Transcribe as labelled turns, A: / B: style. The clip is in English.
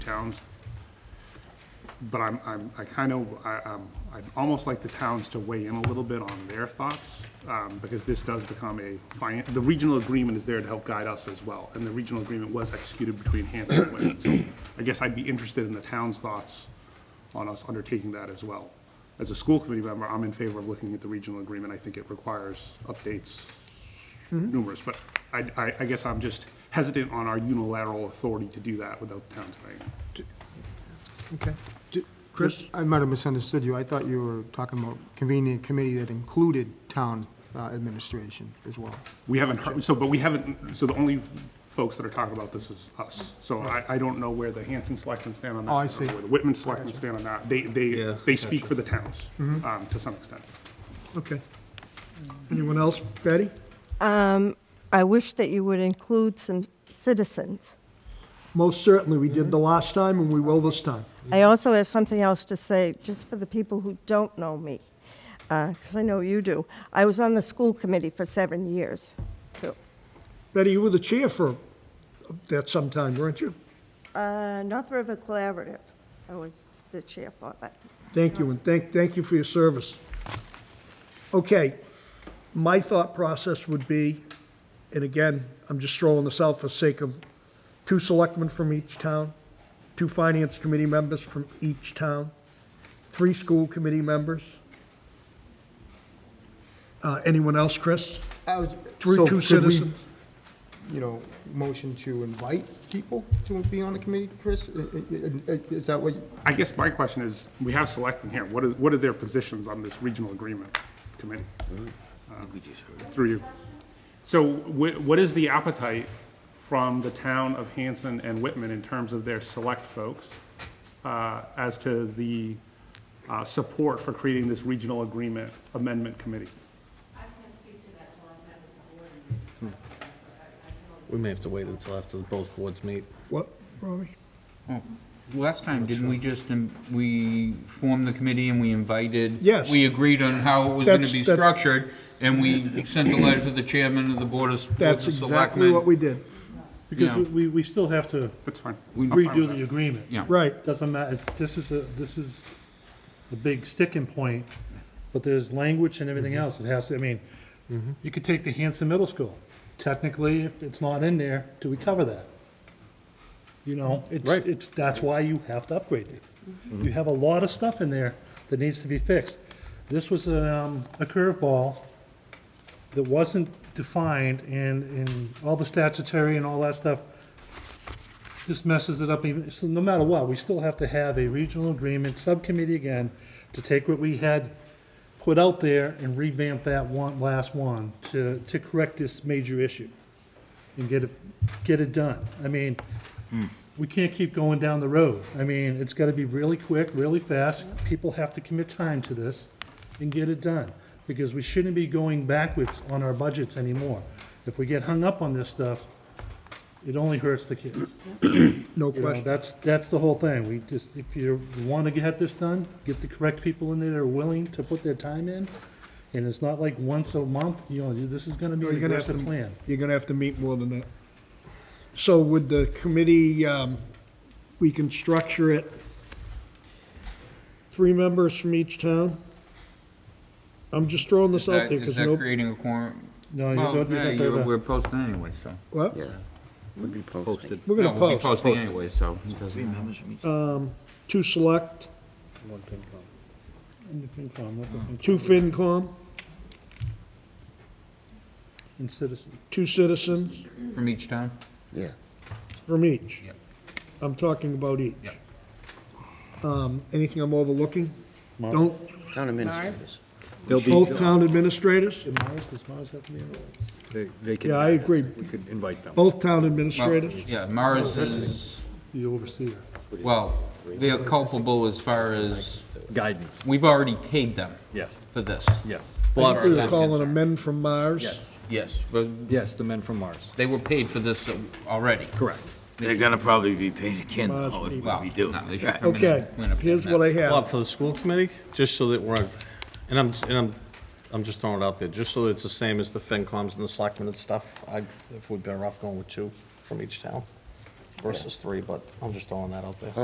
A: towns. But I'm, I'm, I kind of, I, um, I'd almost like the towns to weigh in a little bit on their thoughts, um, because this does become a, fin- the regional agreement is there to help guide us as well, and the regional agreement was executed between Hampton and Wayne. So I guess I'd be interested in the town's thoughts on us undertaking that as well. As a school committee member, I'm in favor of looking at the regional agreement. I think it requires updates numerous, but I, I, I guess I'm just hesitant on our unilateral authority to do that without the town's saying.
B: Okay.
C: Chris?
B: I might have misunderstood you. I thought you were talking about convening a committee that included town uh, administration as well.
A: We haven't heard, so, but we haven't, so the only folks that are talking about this is us. So I, I don't know where the Hanson selectmen stand on that.
B: Oh, I
A: don't know
B: see.
A: Where the Whitman selectmen stand on that. They, they,
C: Yeah,
A: they speak for the towns,
B: Mm-hmm.
A: um, to some extent.
C: Okay. Anyone else? Patty?
D: I wish that you would include some citizens.
C: Most certainly, we
B: Mm-hmm.
C: did the last time and we will this time.
D: I also have something else to say, just for the people who don't know me, because I know you do. I was on the school committee for seven years, too.
C: Betty, you were the chair for that sometime, weren't you?
D: Uh, North River Collaborative, I was the chair for that.
C: Thank you, and thank, thank you for your service. Okay, my thought process would be, and again, I'm just throwing this out for sake of two selectmen from each town, two finance committee members from each town, three school committee members. Uh, anyone else, Chris? Three,
B: So
C: two
B: could we,
C: citizens?
B: You know, motion to invite people to be on the committee, Chris? I- I- I- Is that what, you-
A: I guess my question is, we have selectmen here. What is, what are their positions on this regional agreement committee? Through you. So wh- what is the appetite from the town of Hanson and Whitman in terms of their select folks uh, as to the uh, support for creating this regional agreement amendment committee?
E: We may have to wait until after both boards meet.
C: What, Robbie?
F: Last time, didn't we just, in- we formed the committee and we invited?
C: Yes.
F: We agreed on how it was going
C: That's-
F: to be
C: that-
F: structured, and we sent a letter to the chairman of the board of Board of
C: That's exactly
F: selectmen.
C: what we did.
G: Because
F: Yeah.
G: we- we, we still have to
A: That's fine. I'm fine with
G: redo
A: that.
G: the agreement.
F: Yeah.
C: Right.
G: Doesn't matter, this is a, this is a big sticking point, but there's language and everything else, it has to, I mean, you could take the Hanson Middle School, technically, if it's not in there, do we cover that? You know, it's, it's, that's why you have to upgrade these. You have a lot of stuff in there that needs to be fixed. This was um, a curveball that wasn't defined, and, and all the statutory and all that stuff this messes it up even, so no matter what, we still have to have a regional agreement subcommittee again to take what we had put out there and revamp that one, last one to, to correct this major issue and get it, get it done. I mean, we can't keep going down the road. I mean, it's gotta be really quick, really fast. People have to commit time to this and get it done because we shouldn't be going backwards on our budgets anymore. If we get hung up on this stuff, it only hurts the kids.
C: No
G: You know,
C: question.
G: that's, that's the whole thing. We just, if you want to get this done, get the correct people in there that are willing to put their time in. And it's not like once a month, you know, this is going to be
C: You're
G: an
C: gonna have
G: aggressive
C: to,
G: plan.
C: you're gonna have to meet more than that. So would the committee, um, we can structure it, three members from each town? I'm just throwing this
F: Is that-
C: out there,
F: Is
C: because
F: that
C: no,
F: creating a quorum?
G: No, you
F: Well,
G: don't, you
F: yeah,
G: don't do
F: you're-
G: that.
F: we're posting anyway, so.
C: what?
E: Yeah. Would be posted.
C: We're gonna
F: No, we'll be
C: post,
F: Posting anyway, so. it doesn't matter.
C: um, two select,
G: And the FinCom, let the FinCom-
C: two FinCom,
G: And citizen.
C: two citizens
F: From each town?
E: Yeah.
C: from each.
F: Yep.
C: I'm talking about each.
F: Yep.
C: Um, anything I'm overlooking? Don't,
E: Town administrators.
C: both town administrators?
G: Did Mars, does Mars have to be involved?
H: They, they can.
C: Yeah, I agree.
H: We could invite them.
C: Both town
F: Well,
C: administrators?
F: Yeah, Mars is,
G: The overseer.
F: well, they are culpable as far as,
H: Guidance,
F: we've already paid them
H: yes,
F: for this.
H: yes,
F: Bob,
C: You're calling them men from Mars?
H: yes,
F: Yes, but
H: yes, the men from Mars,
F: they were paid for this uh, already.
H: correct.
I: They're gonna probably be paid again, though, if
F: Well,
I: we do.
F: no, they should come in
C: Okay,
F: and clean up that
C: here's
F: mess.
C: what I have.
E: Bob, for the school committee, just so that we're, and I'm, and I'm, I'm just throwing it out there, just so it's the same as the FinComs and the selectmen and stuff, I, we'd better off going with two from each town. versus three, but I'm just throwing that out there.